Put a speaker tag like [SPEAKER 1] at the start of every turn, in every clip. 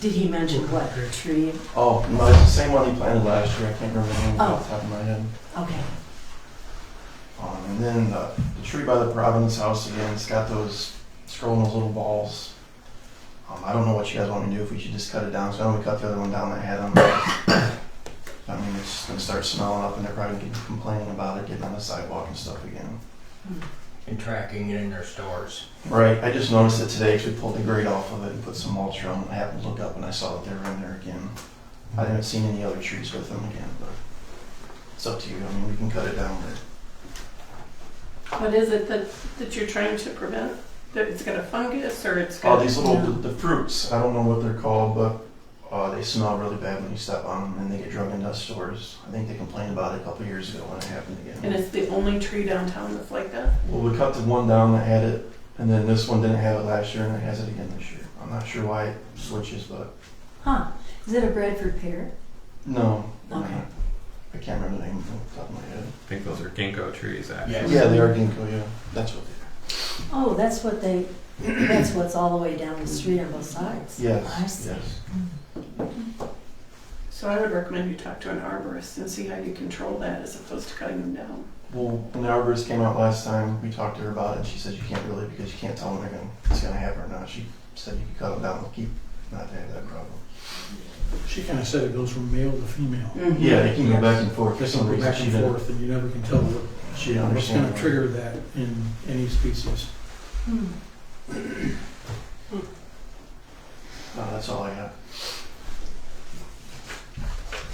[SPEAKER 1] Did he mention what tree?
[SPEAKER 2] Oh, no, it's the same one he planted last year. I can't remember the name off the top of my head.
[SPEAKER 1] Okay.
[SPEAKER 2] Um, and then the, the tree by the Providence House again. It's got those scrolling those little balls. Um, I don't know what you guys want me to do. If we should just cut it down. So I know we cut the other one down. I had them. I mean, it's just gonna start smelling up, and they're probably gonna be complaining about it getting on the sidewalk and stuff again.
[SPEAKER 3] and tracking it in their stores.
[SPEAKER 2] Right. I just noticed it today because we pulled the grate off of it and put some mulch on. I happened to look up and I saw that they were in there again. I haven't seen any other trees with them again, but it's up to you. I mean, we can cut it down. But
[SPEAKER 4] What is it that, that you're trying to prevent? That it's got a fungus or it's
[SPEAKER 2] Oh,
[SPEAKER 4] got?
[SPEAKER 2] these little the, the fruits. I don't know what they're called, but uh, they smell really bad when you step on them, and they get drug into stores. I think they complained about it a couple years ago when it happened again.
[SPEAKER 4] And it's the only tree downtown that's like that?
[SPEAKER 2] Well, we cut the one down that had it, and then this one didn't have it last year, and it has it again this year. I'm not sure why it switches, but
[SPEAKER 1] Huh. Is it a Bradford pear?
[SPEAKER 2] no.
[SPEAKER 1] Okay.
[SPEAKER 2] I can't remember the name off the top of my head.
[SPEAKER 5] I think those are ginkgo trees, actually.
[SPEAKER 3] Yes.
[SPEAKER 2] Yeah, they are ginkgo. Yeah, that's what. they
[SPEAKER 1] Oh, that's what they, that's what's all the way down the street on both sides.
[SPEAKER 2] are. Yes.
[SPEAKER 1] Oh, I see.
[SPEAKER 2] Yes.
[SPEAKER 4] So I would recommend you talk to an arborist and see how you control that as opposed to cutting them down.
[SPEAKER 2] Well, when the arborist came out last time, we talked to her about it, and she said you can't really because you can't tell when they're gonna, it's gonna happen or not. She said you could cut them down and keep not to have that problem.
[SPEAKER 6] She kind of said it goes from male to female.
[SPEAKER 7] Mm-hmm.
[SPEAKER 2] Yeah, they can go back and forth for
[SPEAKER 6] It
[SPEAKER 2] some
[SPEAKER 6] can go
[SPEAKER 2] reason.
[SPEAKER 6] back
[SPEAKER 2] She
[SPEAKER 6] and
[SPEAKER 2] didn't,
[SPEAKER 6] forth, and you never can tell what-
[SPEAKER 2] she didn't
[SPEAKER 6] what's
[SPEAKER 2] understand.
[SPEAKER 6] going to trigger that in any species.
[SPEAKER 1] Hmm.
[SPEAKER 2] No, that's all I got.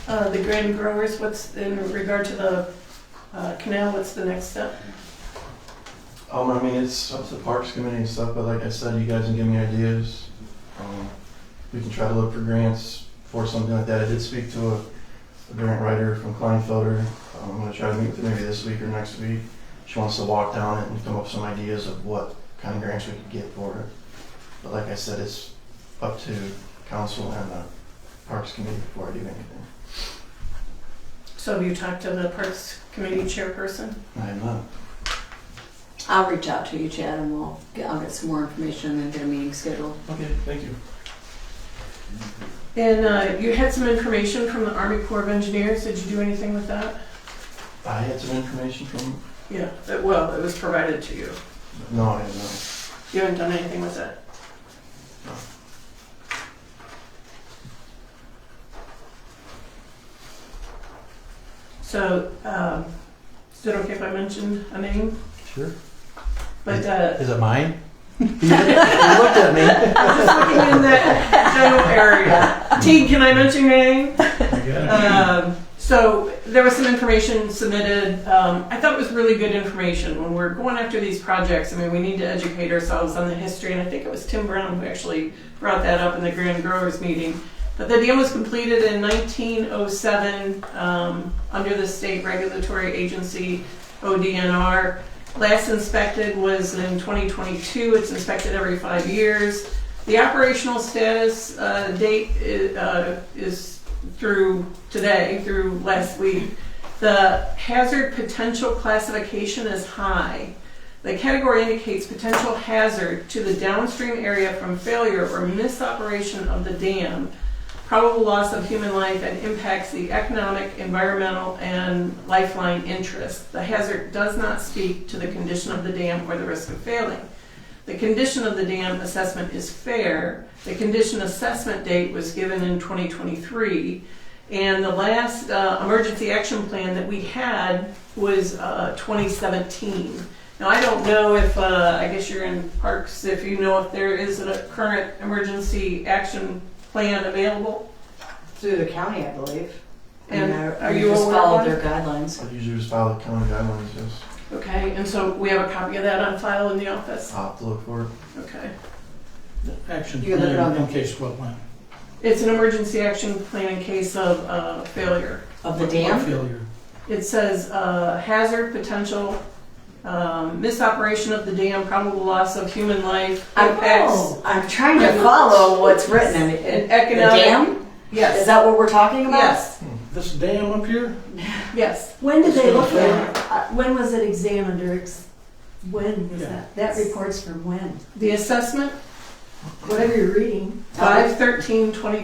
[SPEAKER 4] Uh, the grain growers, what's in regard to the uh, canal, what's the next step?
[SPEAKER 2] Um, I mean, it's up to the Parks Committee and stuff, but like I said, you guys can give me ideas. Um, we can try to look for grants for something like that. I did speak to a, a grant writer from Kleinfelder. Um, I'm gonna try to meet with her maybe this week or next week. She wants to walk down it and come up with some ideas of what kind of grants we could get for it. But like I said, it's up to council and the Parks Committee before I do anything.
[SPEAKER 4] So have you talked to the Parks Committee chairperson?
[SPEAKER 2] I am not.
[SPEAKER 7] I'll reach out to you, Chad, and we'll get, I'll get some more information and get a meeting scheduled.
[SPEAKER 2] Okay, thank you.
[SPEAKER 4] And uh, you had some information from the Army Corps of Engineers. Did you do anything with that?
[SPEAKER 2] I had some information from,
[SPEAKER 4] Yeah, that, well, it was provided to you.
[SPEAKER 2] no, I have not.
[SPEAKER 4] You haven't done anything with it?
[SPEAKER 2] No.
[SPEAKER 4] So, um, is it okay if I mentioned a name?
[SPEAKER 8] Sure.
[SPEAKER 4] But, uh,
[SPEAKER 8] Is it mine? you looked at me.
[SPEAKER 4] looking in that general area. Teague, can I mention your name? Um, so there was some information submitted. Um, I thought it was really good information. When we're going after these projects, I mean, we need to educate ourselves on the history. And I think it was Tim Brown who actually brought that up in the Grand Growers meeting. But the dam was completed in 1907 um, under the state regulatory agency ODNR. Last inspected was in 2022. It's inspected every five years. The operational status uh, date is, uh, is through today, through last week, the hazard potential classification is high. The category indicates potential hazard to the downstream area from failure or misoperation of the dam, probable loss of human life, and impacts the economic, environmental, and lifeline interests. The hazard does not speak to the condition of the dam or the risk of failing. The condition of the dam assessment is fair. The condition assessment date was given in 2023. And the last uh, emergency action plan that we had was uh, 2017. Now, I don't know if, uh, I guess you're in parks, if you know if there is a current emergency action plan available?
[SPEAKER 7] Through the county, I believe.
[SPEAKER 4] And
[SPEAKER 7] I-
[SPEAKER 4] are
[SPEAKER 7] we
[SPEAKER 4] you
[SPEAKER 7] just
[SPEAKER 4] aware of
[SPEAKER 7] followed
[SPEAKER 4] one?
[SPEAKER 7] their guidelines?
[SPEAKER 2] I usually just follow the county guidelines, yes.
[SPEAKER 4] Okay, and so we have a copy of that on file in the office?
[SPEAKER 2] I'll have to look for it.
[SPEAKER 4] Okay.
[SPEAKER 6] Action
[SPEAKER 7] You look it
[SPEAKER 6] plan
[SPEAKER 7] up.
[SPEAKER 6] in case wetland
[SPEAKER 4] It's an emergency action plan in case of uh, failure.
[SPEAKER 7] Of the dam?
[SPEAKER 6] failure.
[SPEAKER 4] It says uh, hazard, potential, um, misoperation of the dam, probable loss of human life,
[SPEAKER 7] I'm,
[SPEAKER 4] impacts,
[SPEAKER 7] Oh, I'm trying to follow what's written in it.
[SPEAKER 4] and
[SPEAKER 7] The
[SPEAKER 4] economic.
[SPEAKER 7] dam? Is
[SPEAKER 4] Yes.
[SPEAKER 7] that what we're talking about?
[SPEAKER 4] Yes.
[SPEAKER 6] This dam up here,
[SPEAKER 4] Yes.
[SPEAKER 1] When did they look
[SPEAKER 6] Yeah.
[SPEAKER 1] at, uh, when was it examined or ex, when was
[SPEAKER 6] Yeah.
[SPEAKER 1] that? That report's from when?
[SPEAKER 4] The assessment,
[SPEAKER 1] Whatever you're reading.
[SPEAKER 4] five thirteen twenty